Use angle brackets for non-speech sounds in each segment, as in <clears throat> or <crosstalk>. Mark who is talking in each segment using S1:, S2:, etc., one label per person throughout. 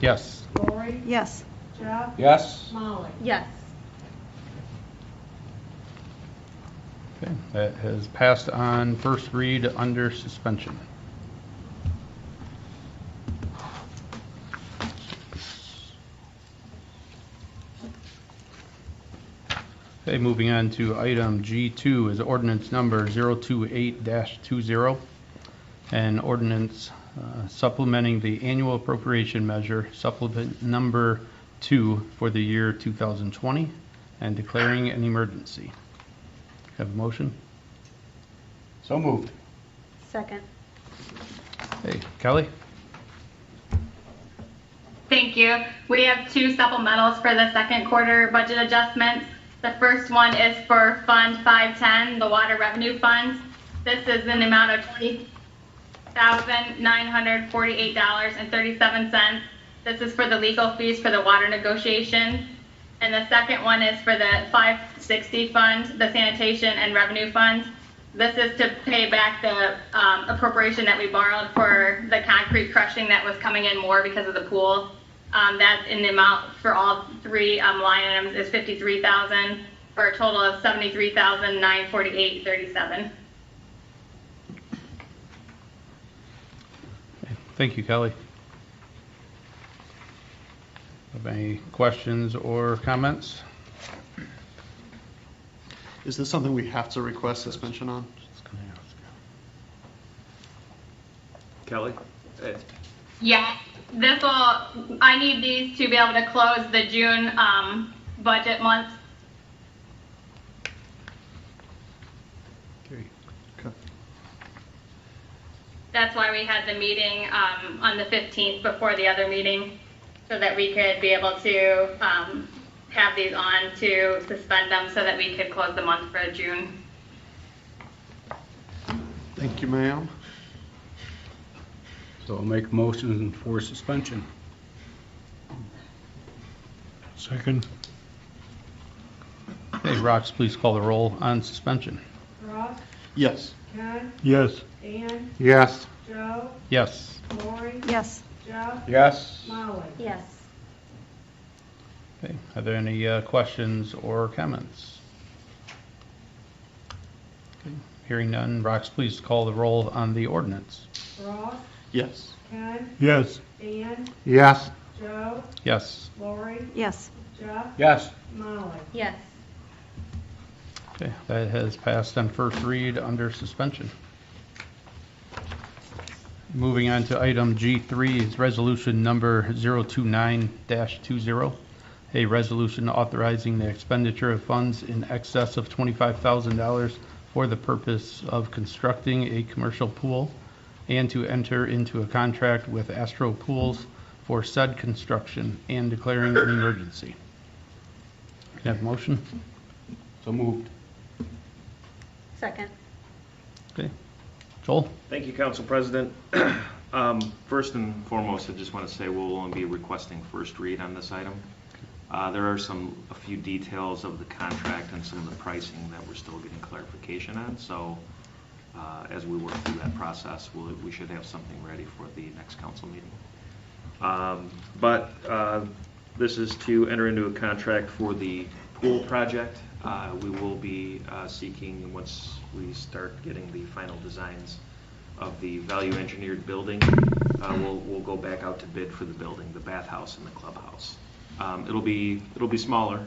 S1: Yes.
S2: Lori,
S3: Yes.
S2: Jeff,
S1: Yes.
S2: Molly.
S4: Yes.
S1: Okay, That has passed on first read under suspension. Okay, moving on to item G2 is ordinance number 028-20, an ordinance uh, supplementing the annual appropriation measure supplement number two for the year 2020 and declaring an emergency. Have a motion?
S5: So moved.
S4: Second.
S1: Hey, Kelly?
S6: Thank you. We have two supplementals for the second quarter budget adjustments. The first one is for Fund 510, the Water Revenue Fund. This is an amount of $20,948.37. This is for the legal fees for the water negotiation. And the second one is for the 560 Fund, the Sanitation and Revenue Fund. This is to pay back the um, appropriation that we borrowed for the concrete crushing that was coming in more because of the pool. Um, That in the amount for all three um, line items is 53,000 for a total of 73,948.37.
S1: Thank you, Kelly. Have any questions or comments?
S5: Is this something we have to request suspension on?
S7: Kelly? Eh,
S6: Yes, this will, I need these to be able to close the June um, budget month.
S5: Okay.
S6: That's why we had the meeting um, on the 15th before the other meeting, so that we could be able to um, have these on to suspend them so that we could close the month for June.
S5: Thank you, ma'am.
S8: So I'll make motion for suspension.
S1: Second. Hey, Rox, please call the roll on suspension.
S2: Ross,
S5: Yes.
S2: Ken,
S8: Yes.
S2: Ann,
S5: Yes.
S2: Joe,
S1: Yes.
S2: Lori,
S3: Yes.
S2: Jeff,
S8: Yes.
S2: Molly.
S4: Yes.
S1: Okay, are there any uh, questions or comments? Okay, Hearing none, Rox, please call the roll on the ordinance.
S2: Ross,
S5: Yes.
S2: Ken,
S8: Yes.
S2: Ann,
S5: Yes.
S2: Joe,
S1: Yes.
S2: Lori,
S3: Yes.
S2: Jeff,
S8: Yes.
S2: Molly.
S4: Yes.
S1: Okay, that has passed on first read under suspension. Moving on to item G3 is resolution number 029-20, a resolution authorizing the expenditure of funds in excess of $25,000 for the purpose of constructing a commercial pool and to enter into a contract with Astro Pools for said construction and declaring an emergency. Can I have a motion?
S8: So moved.
S4: Second.
S1: Joel?
S7: Thank you, Council President. <clears throat> Um, First and foremost, I just want to say we'll only be requesting first read on this item. Uh, There are some, a few details of the contract and some of the pricing that we're still getting clarification on, so uh, as we work through that process, we'll- we should have something ready for the next council meeting. Um, But uh, this is to enter into a contract for the pool project. Uh, We will be uh, seeking, once we start getting the final designs of the value engineered building, uh, we'll, we'll go back out to bid for the building, the bathhouse and the clubhouse. Um, It'll be, it'll be smaller,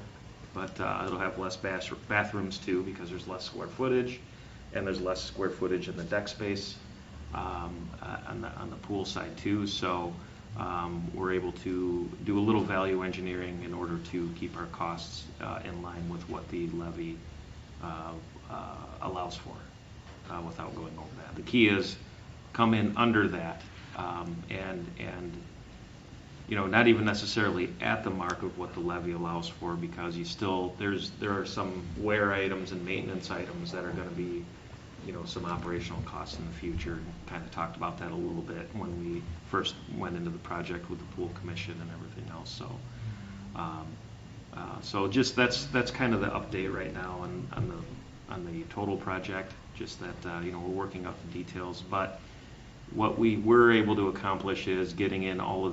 S7: but uh, it'll have less bas- bathrooms too, because there's less square footage, and there's less square footage in the deck space um, uh, on the, on the pool side too. So um, we're able to do a little value engineering in order to keep our costs uh, in line with what the levy uh, uh, allows for uh, without going over that. The key is come in under that um, and, and, you know, not even necessarily at the mark of what the levy allows for because you still, there's, there are some wear items and maintenance items that are going to be, you know, some operational costs in the future. Kind of talked about that a little bit when we first went into the project with the pool commission and everything else, so. um, uh, So just, that's, that's kind of the update right now on, on the, on the total project, just that, uh, you know, we're working out the details. But what we were able to accomplish is getting in all of